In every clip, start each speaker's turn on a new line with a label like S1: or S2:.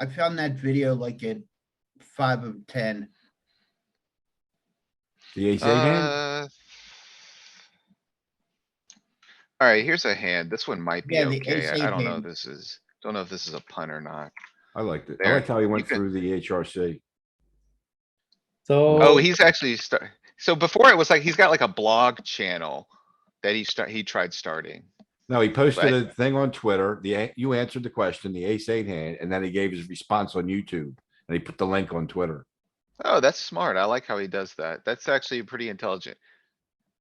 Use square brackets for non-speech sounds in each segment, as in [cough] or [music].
S1: I found that video like at five of ten.
S2: The ace eight hand,
S3: Uh, Alright, here's a hand. This one might be
S1: Yeah, the
S3: okay.
S1: ace-eight
S3: I I don't know if
S1: hand.
S3: this is, don't know if this is a pun or not.
S2: I liked it. I
S3: there,
S2: liked how he went
S3: could-
S2: through the HRC.
S4: So.
S3: Oh, he's actually start, so before it was like, he's got like a blog channel that he start, he tried starting.
S2: No, he posted
S3: Right.
S2: a thing on Twitter. The, a- you answered the question, the ace eight hand, and then he gave his response on YouTube. And he put the link on Twitter.
S3: Oh, that's smart. I like how he does that. That's actually pretty intelligent.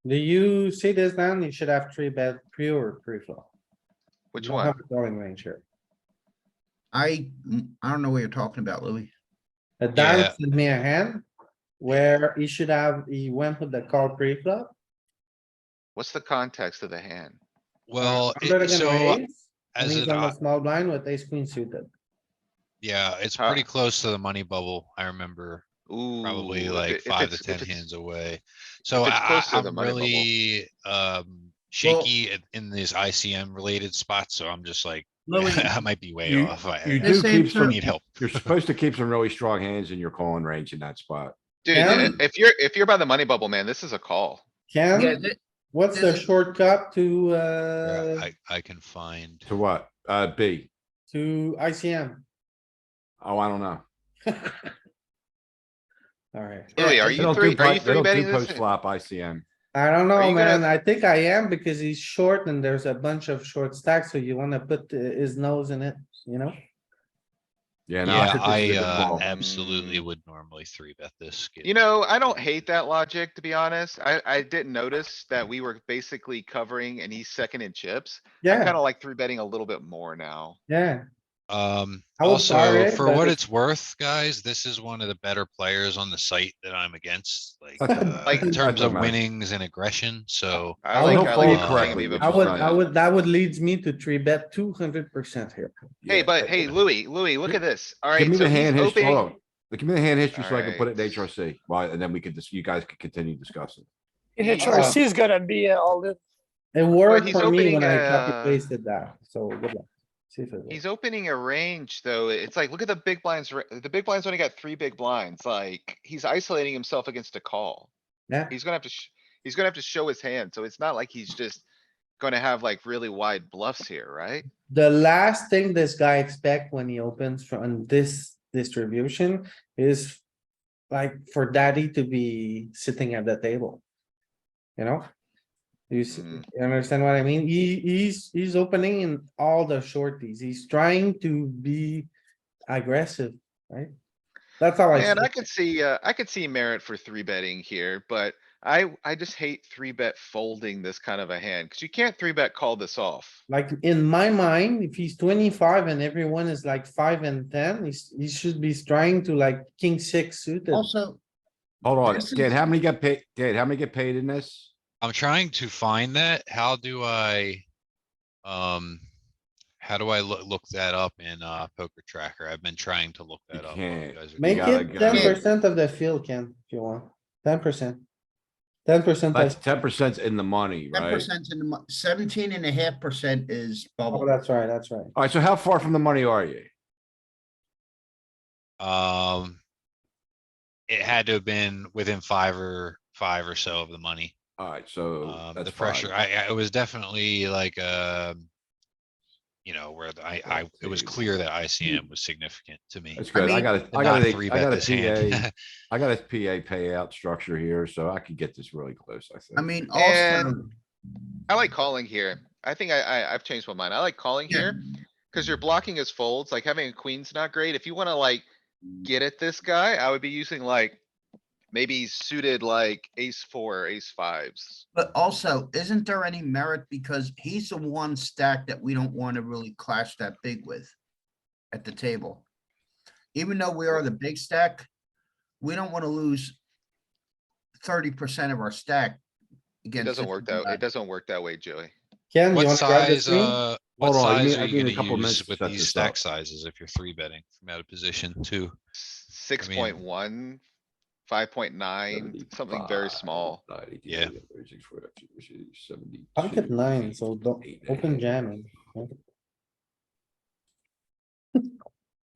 S4: Do you see this man? You should have three bet pre or pre flop.
S3: Which
S4: You don't have
S3: one?
S4: a Calling range here.
S1: I, I don't know what you're talking about, Louis.
S4: A
S5: Yeah.
S4: dime sent me a hand where he should have, he went with the call pre flop.
S3: What's the context of the hand?
S5: Well,
S4: I'm
S5: it-
S4: better than
S3: uh,
S4: my
S5: so uh,
S4: ace, And
S5: as
S4: he's
S5: an,
S4: on a
S5: o-
S4: small blind with ace queen suited.
S5: yeah, it's
S3: Huh?
S5: pretty close to the money bubble. I remember
S3: Ooh.
S5: probably
S3: if
S5: like
S3: it- if
S5: five to
S3: it's- if
S5: ten
S3: it's-
S5: hands away. So I,
S3: it's
S5: I-
S3: close to the
S5: I'm
S3: money bubble.
S5: really, um, shaky in- in these ICM related spots, so I'm just like, [laughs]
S1: Louis,
S5: I might be way
S2: you-
S5: off. I-
S2: You
S5: I
S2: do
S1: This ain't
S2: keep some,
S5: Need help.
S2: [laughs] you're supposed to keep some really strong hands in your calling range in that spot.
S3: Dude,
S4: Yeah.
S3: i- if you're, if you're by the money bubble, man, this is a call.
S1: yeah,
S4: Ken,
S1: th-
S4: what's the
S1: this is-
S4: shortcut to,
S5: Yeah,
S4: uh,
S5: I, I can find,
S2: To what? Uh, B.
S4: to ICM?
S2: Oh, I don't know.
S4: [laughs] Alright,
S3: Louis, are
S1: They
S2: They
S3: you
S2: don't
S3: three,
S2: do
S3: are you
S2: pot- they
S3: three
S2: don't do
S3: betting this?
S2: Post flop ICM.
S4: I don't
S3: Are
S4: know,
S3: you gonna-
S4: man. I think I am because he's short and there's a bunch of short stacks, so you wanna put uh, his nose in it, you know?
S2: Yeah, no, I
S5: yeah,
S2: think this
S5: I,
S2: is a good
S5: uh,
S2: call.
S5: absolutely would normally three bet this.
S3: Mm. You know, I don't hate that logic, to be honest. I, I didn't notice that we were basically covering and he's second in chips. I
S4: Yeah,
S3: kinda like three betting a little bit more now.
S4: yeah.
S5: Um,
S4: I will fire
S5: also,
S4: it,
S5: for
S4: but
S5: what
S4: it-
S5: it's worth, guys, this is one of the better players on the site that I'm against, like,
S2: That doesn't-
S5: uh,
S3: Like-
S5: in
S2: that
S5: terms
S2: doesn't
S5: of
S2: matter.
S5: winnings and aggression, so.
S3: I
S4: I
S3: like,
S4: would
S3: I
S4: play
S3: like.
S4: it
S3: calling
S2: correctly.
S3: him
S4: I
S3: even
S4: would,
S3: more.
S4: I would, that would leads me to three bet two hundred percent here.
S3: Hey,
S2: Yeah.
S3: but hey, Louis, Louis, look at this.
S2: Give
S3: Alright,
S2: me
S3: so
S2: the
S3: he's
S2: hand history, hold
S3: opening,
S2: on. Look, Give me the hand history so I can put it in
S3: Alright.
S2: HRC. Why, and then we could just, you guys could continue discussing.
S3: Yeah.
S6: HRC is gonna be uh, all this.
S4: Uh, It worked
S3: he's
S4: for me
S3: opening
S4: when I
S3: a-
S4: copy pasted that, so good luck. See if it works.
S3: he's opening a range, though. It's like, look at the big blinds, ra- the big blinds only got three big blinds, like, he's isolating himself against a call.
S4: Yeah.
S3: He's gonna have to, sh- he's gonna have to show his hand, so it's not like he's just gonna have like really wide bluffs here, right?
S4: The last thing this guy expect when he opens from this distribution is like for daddy to be sitting at the table. You know? You s-
S3: Mm.
S4: you understand what I mean? He, he's, he's opening in all the shorties. He's trying to be aggressive, right? That's how I.
S3: Man,
S4: see
S3: I
S4: it.
S3: could see, uh, I could see merit for three betting here, but I, I just hate three bet folding this kind of a hand, cuz you can't three bet call this off.
S4: Like in my mind, if he's twenty-five and everyone is like five and ten, he's, he should be trying to like king six suited.
S1: also,
S2: Hold on,
S1: This is-
S2: Dan, how many get paid? Dan, how many get paid in this?
S5: I'm trying to find that. How do I? Um, how do I look, look that up in, uh, Poker Tracker? I've been trying to look
S2: You
S5: that up. while you
S2: can't.
S5: guys are
S4: Make
S5: talking.
S2: gotta-
S4: it ten
S2: gotta-
S4: percent of the field, Ken, if you want, ten percent. Ten percent,
S2: That's
S4: that's,
S2: ten percent in the money,
S1: ten
S2: right?
S1: percent in the, mo- seventeen and a half percent is
S4: oh,
S1: bubble.
S4: that's right, that's right.
S2: Alright, so how far from the money are you?
S5: Um. It had to have been within five or five or so of the money.
S2: Alright, so
S5: Um,
S2: that's
S5: the pressure,
S2: five.
S5: I, I, it was definitely like, um. You know, where the- I, I, it was
S2: Fourteen.
S5: clear that ICM was significant to me.
S2: That's good. Mm. I
S1: mean-
S2: got a,
S5: to
S2: I got
S5: not
S2: a,
S5: three
S2: I
S5: bet
S2: got a
S5: this [laughs] hand.
S2: PA, I got a PA payout structure here, so I could get this really close, I think.
S1: I mean, also,
S3: And- I like calling here. I think I, I, I've changed my mind. I like calling
S1: Yeah.
S3: here. Cuz you're blocking his folds, like having a queen's not great. If you wanna like get at this guy, I would be using like maybe suited like ace four, ace fives.
S1: but also, isn't there any merit because he's the one stack that we don't want to really clash that big with at the table. Even though we are the big stack, we don't want to lose thirty percent of our stack.
S3: It
S1: against
S3: doesn't
S1: this
S3: work that,
S1: guy.
S3: it doesn't work that way, Joey.
S4: Ken, you
S5: What
S4: wanna grab the
S5: size,
S4: screen?
S5: uh, what
S2: Hold on, I
S5: size
S2: need- I
S5: are
S2: need a
S5: you
S2: couple
S5: gonna
S2: minutes
S5: use
S2: to
S5: with
S2: set
S5: these
S2: this up.
S5: stack sizes if you're three betting from out of position too?
S3: Six point one, five point nine, something very
S2: 75,
S3: small.
S2: 90,
S5: Yeah.
S2: 34, 72,
S4: Pocket nine, so don't,
S2: 8 and a
S4: open
S2: half.
S4: jamming.